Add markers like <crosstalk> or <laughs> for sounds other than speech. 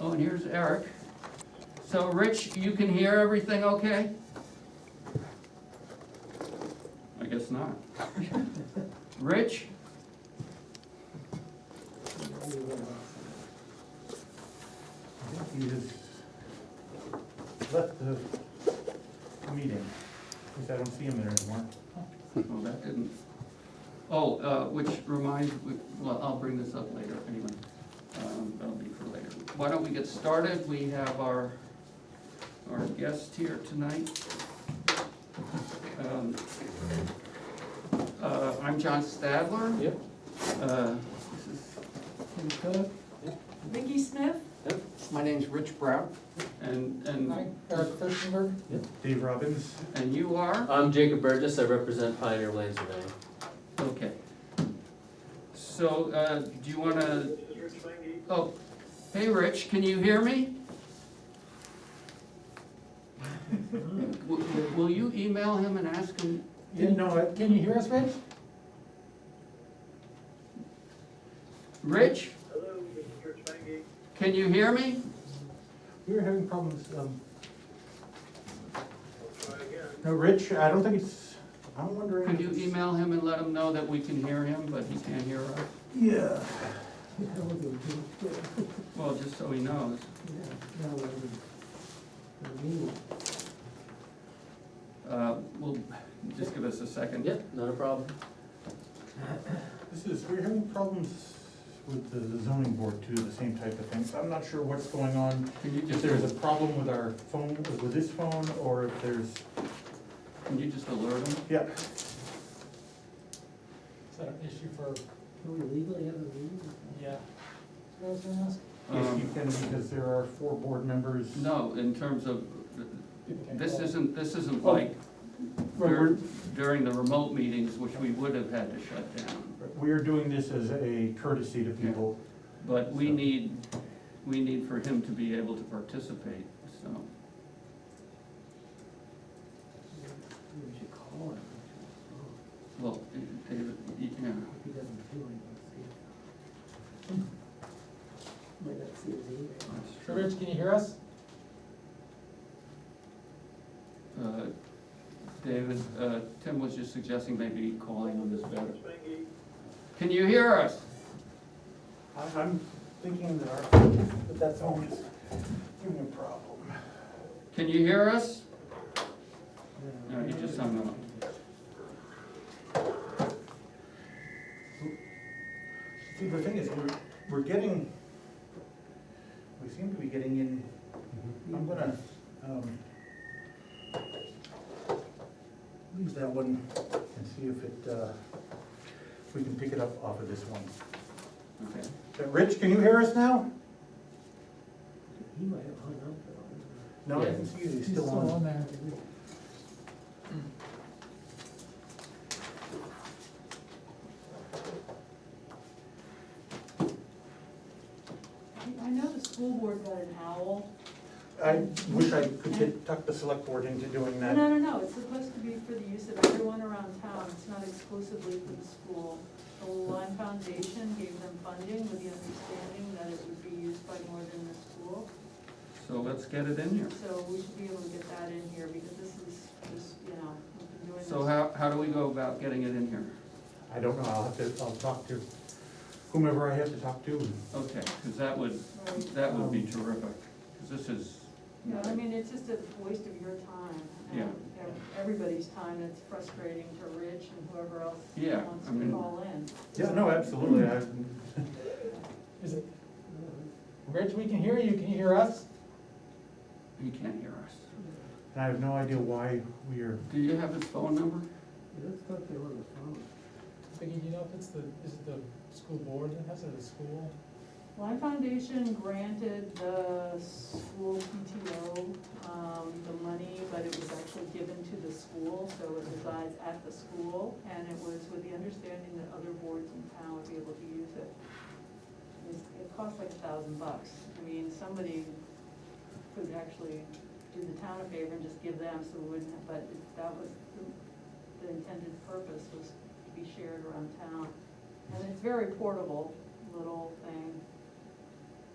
Oh, and here's Eric. So, Rich, you can hear everything okay? I guess not. <laughs> Rich? He has left the meeting, because I don't see him there anymore. Oh, that didn't. Oh, uh, which reminds, well, I'll bring this up later, anyway. Um, That'll be for later. Why don't we get started? We have our, our guest here tonight. Um, uh, I'm John Stadler. Yep. Uh, This is Tim Cook, Vicky Smith? My name's Rich Brown. and, and, Eric Christenberg. Dave Robbins, and you are? I'm Jacob Burgess, I represent Pioneer Land Surveying. Okay. So, uh, do you wanna? Oh, hey, Rich, can you hear <laughs> me? W- w- Will you email him and ask him? didn't know it. Can you hear us, Rich? Rich, can you hear me? We were having problems, um. No, Rich, I don't think it's, I'm wondering. Could if you it's- email him and let him know that we can hear him, but he can't hear us? Yeah. Well, just so he knows. Uh, Well, just give us a second. Yep, not a problem. This is, we're having problems with the zoning board too, the same type of things. I'm not sure what's going on. Can you If just, there's a problem with our phone, with this phone, or if there's, can you just alert him? yeah, Is that an issue for, Can we legally have a meeting? yeah? if you Um, can, because there are four board members. No, in terms of, this isn't, this isn't Oh. like Right, we're- during the remote meetings, which we would have had to shut down. We are doing this as a courtesy to people. But we So- need, we need for him to be able to participate, so. We should call him. Oh, Well, David, yeah, He doesn't feel like he's here. Might not see his email. that's So true. Rich, can you hear us? Uh, David, uh, Tim was just suggesting maybe calling him is better. Can you hear us? I- I'm thinking that our, that that's always giving a problem. Can you hear us? No, he just hung up. See, the thing is, we're, we're getting, we seem to be getting in, I'm gonna, um, leave that one and see if it, uh, if we can pick it up off of this one. Okay. Uh, Rich, can you hear us now? He might have hung up though. No, I Yeah. can see you, he's still on. there. I know the school board got an owl. I wish I could get, tuck the select board into doing No, that. no, no, no, it's supposed to be for the use of everyone around town, it's not exclusively for the school. The Lime Foundation gave them funding with the understanding that it would be used by more than the school. So let's get it in here. So we should be able to get that in here, because this is just, you know, we've been doing this. So how, how do we go about getting it in here? I don't know, I'll have to, I'll talk to whomever I have to talk to. Okay, because that would, Right. that would be terrific, because this is. Yeah, I mean, it's just a waste of your time. and Yeah. ev- Everybody's time, it's frustrating to Rich and whoever else Yeah, wants I to mean- call in. Yeah, no, absolutely, I, Is it, Rich, we can hear you, can you hear us? He can't hear us. I have no idea why we are, Do you have his phone number? Let's talk to him on the phone. Vicky, do you know if it's the, is it the school board that has it, the school? Lime Foundation granted the school PTO, um, the money, but it was actually given to the school, so it resides at the school, and it was with the understanding that other boards in town would be able to use it. It's- It costs like a thousand bucks, I mean, somebody could actually do the town a favor and just give them, so we wouldn't, but it- that was, the- the intended purpose was to be shared around town. And it's very portable, little thing,